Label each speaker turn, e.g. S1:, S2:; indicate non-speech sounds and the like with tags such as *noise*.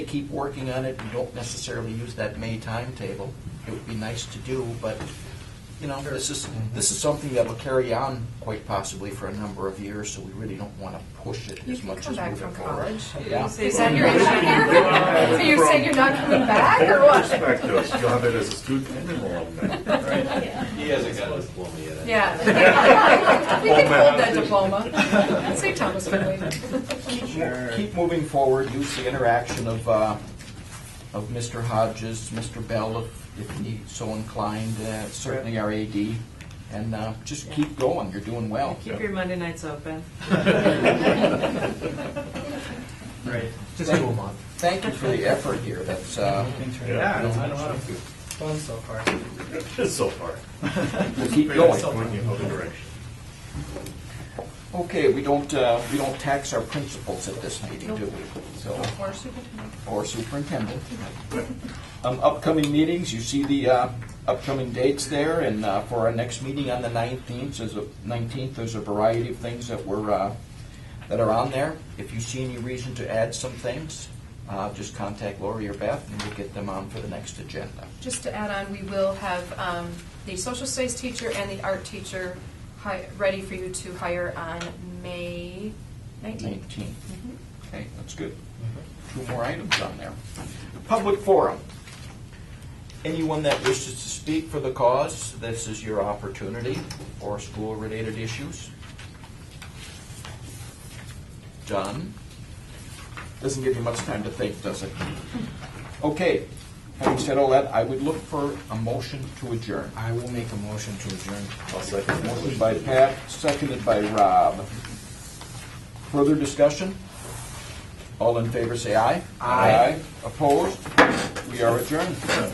S1: to keep working on it. We don't necessarily use that May timetable. It would be nice to do, but, you know, this is, this is something that will carry on quite possibly for a number of years, so we really don't want to push it
S2: You
S1: as
S2: can
S1: much
S2: come
S1: as
S2: back
S1: moving
S2: from
S1: forward.
S2: college.
S1: Yeah.
S2: Is that your issue? *laughs* So you're saying you're not coming back or what?
S3: Perspectives, you'll have it as a student and an alumni.
S4: He hasn't got his diploma yet.
S1: *laughs*
S2: Yeah. We can
S3: Diploma.
S2: hold that diploma. St. Thomas Finley.
S1: Keep mo- Keep moving forward, use the interaction of, uh, of Mr. Hodges, Mr. Bell, if, if he so inclined, uh, certainly our AD, and uh, just keep going, you're doing well.
S5: Keep your Monday nights open.
S6: Right, just do a month.
S1: Thank you for the effort here, that's, uh,
S6: Been through it.
S3: Yeah.
S6: Yeah, it's been a lot of fun so far.
S3: So far.
S1: we'll keep
S3: Bring us
S1: going.
S3: in the other direction.
S1: Okay, we don't, uh, we don't tax our principals at this meeting, do we? So,
S2: Or superintendent.
S1: or superintendent. Um, Upcoming meetings, you see the uh, upcoming dates there, and uh, for our next meeting on the 19th, there's a, 19th, there's a variety of things that were, uh, that are on there. If you see any reason to add some things, uh, just contact Lori or Beth, and we'll get them on for the next agenda.
S2: Just to add on, we will have um, the social studies teacher and the art teacher hi- ready for you to hire on May Mm-hmm. 19th.
S1: 19th. Okay, that's good.
S6: Mm-hmm.
S1: Two more items on there. Public forum. Anyone that wishes to speak for the cause, this is your opportunity for school-related issues. Done. Doesn't give you much time to think, does it? Okay, having said all that, I would look for a motion to adjourn.
S6: I will make a motion to adjourn.
S1: Motion by Pat, seconded by Rob. Further discussion? All in favor, say aye.
S6: Aye.
S1: Opposed? We are adjourned.